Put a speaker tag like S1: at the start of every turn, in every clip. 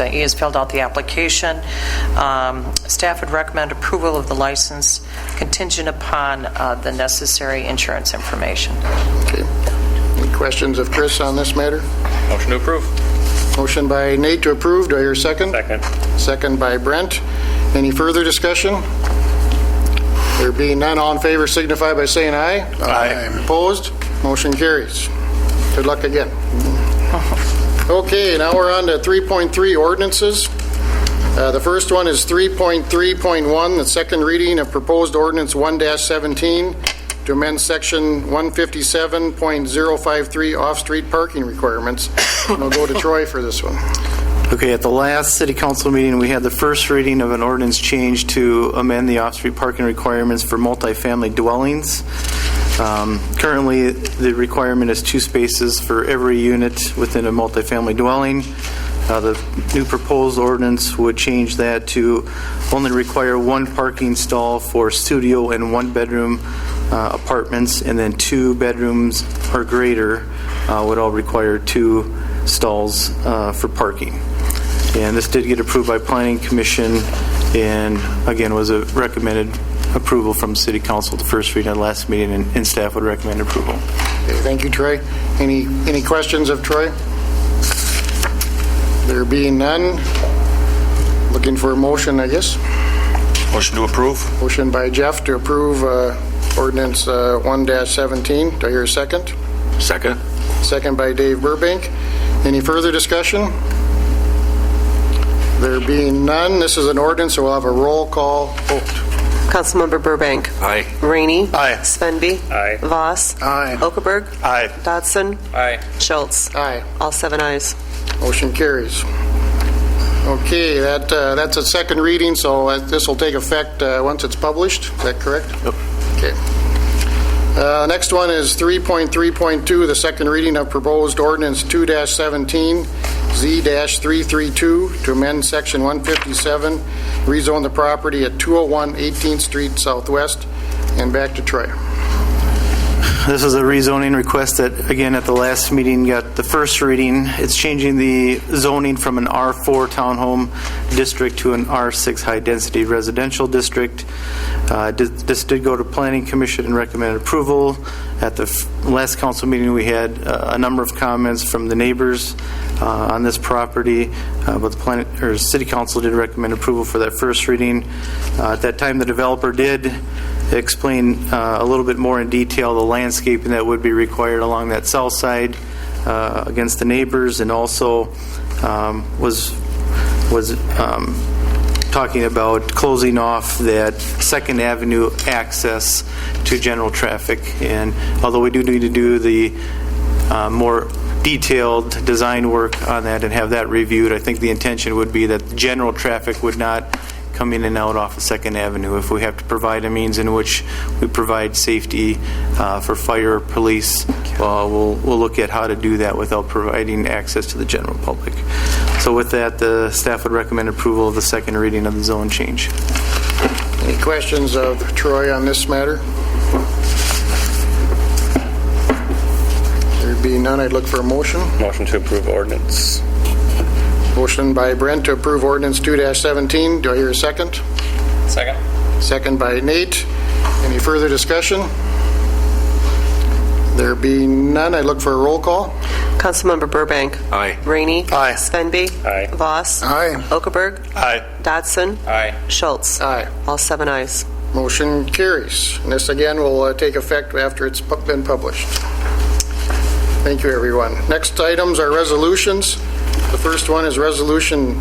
S1: Uh, E has filled out the application. Um, Staff would recommend approval of the license contingent upon uh, the necessary insurance information.
S2: Okay. Any questions of Chris on this matter?
S3: Motion to approve.
S2: Motion by Nate to approve, do I hear a second?
S3: Second.
S2: Second by Brent. Any further discussion? There being none, all in favor signify by saying aye.
S3: Aye.
S2: Opposed? Motion carries. Good luck again. Okay, now we're on to 3.3 ordinances. Uh, The first one is 3.3.1, the second reading of proposed ordinance 1-17 to amend section 157.053 off-street parking requirements. And We'll go to Troy for this one.
S4: Okay, at the last city council meeting, we had the first reading of an ordinance change to amend the off-street parking requirements for multifamily dwellings. Um, Currently, the requirement is two spaces for every unit within a multifamily dwelling. Uh, The new proposed ordinance would change that to only require one parking stall for studio and one-bedroom uh, apartments, and then two bedrooms or greater uh, would all require two stalls uh, for parking. And this did get approved by Planning Commission, and again, was a recommended approval from City Council, the first reading at last meeting, and and staff would recommend approval.
S2: Okay, Thank you, Troy. Any, any questions of Troy? There being none, looking for a motion, I guess.
S3: Motion to approve.
S2: Motion by Jeff to approve uh, ordinance uh, 1-17. Do I hear a second?
S3: Second.
S2: Second by Dave Burbank. Any further discussion? There being none, this is an ordinance, so we'll have a roll call vote.
S5: Councilmember Burbank.
S3: Aye.
S5: Rainey.
S3: Aye.
S5: Svenby.
S3: Aye.
S5: Voss.
S2: Aye.
S5: Okaberg.
S3: Aye.
S5: Dodson.
S3: Aye.
S5: Schultz.
S2: Aye.
S5: All seven ayes.
S2: Motion carries. Okay, that, uh, that's a second reading, so this will take effect uh, once it's published. Is that correct? Yep. Okay. Uh, Next one is 3.3.2, the second reading of proposed ordinance 2-17, Z-332, to amend Section 157, rezone the property at 201 18th Street Southwest, and back to Troy.
S4: This is a rezoning request that, again, at the last meeting, got the first reading. It's changing the zoning from an R4 townhome district to an R6 high-density residential district. Uh, di- This did go to Planning Commission and recommended approval. At the f- last council meeting, we had uh, a number of comments from the neighbors uh, on this property, uh, but the plan, or City Council did recommend approval for that first reading. Uh, At that time, the developer did explain uh, a little bit more in detail the landscaping that would be required along that south side uh, against the neighbors, and also um, was, was um, talking about closing off that Second Avenue access to general traffic. And although we do need to do the uh, more detailed design work on that and have that reviewed. I think the intention would be that general traffic would not come in and out off of Second Avenue. If we have to provide a means in which we provide safety uh, for fire, or police, uh, we'll, we'll look at how to do that without providing access to the general public. So with that, the staff would recommend approval of the second reading of the zone change.
S2: Any questions of Troy on this matter? There being none, I'd look for a motion.
S3: Motion to approve ordinance.
S2: Motion by Brent to approve ordinance 2-17. Do I hear a second?
S3: Second.
S2: Second by Nate. Any further discussion? There being none, I'd look for a roll call.
S5: Councilmember Burbank.
S3: Aye.
S5: Rainey.
S2: Aye.
S5: Svenby.
S3: Aye.
S5: Voss.
S2: Aye.
S5: Okaberg.
S3: Aye.
S5: Dodson.
S3: Aye.
S5: Schultz.
S2: Aye.
S5: All seven ayes.
S2: Motion carries. And this again will uh, take effect after it's pu- been published. Thank you, everyone. Next items are resolutions. The first one is Resolution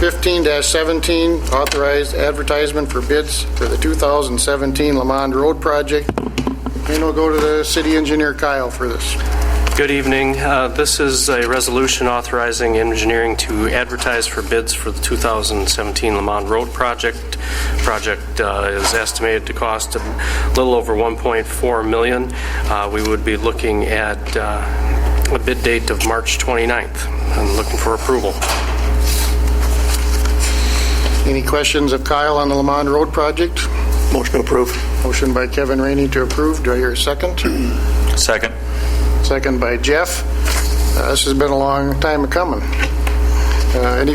S2: 15-17, authorized advertisement for bids for the 2017 Lamond Road project. And we'll go to the city engineer Kyle for this.
S6: Good evening. Uh, This is a resolution authorizing engineering to advertise for bids for the 2017 Lamont Road project. Project uh, is estimated to cost a little over 1.4 million. Uh, We would be looking at uh, a bid date of March 29th. I'm looking for approval.
S2: Any questions of Kyle on the Lamond Road project?
S3: Motion to approve.
S2: Motion by Kevin Rainey to approve. Do I hear a second?
S3: Second.
S2: Second by Jeff. Uh, This has been a long time coming. Uh, Any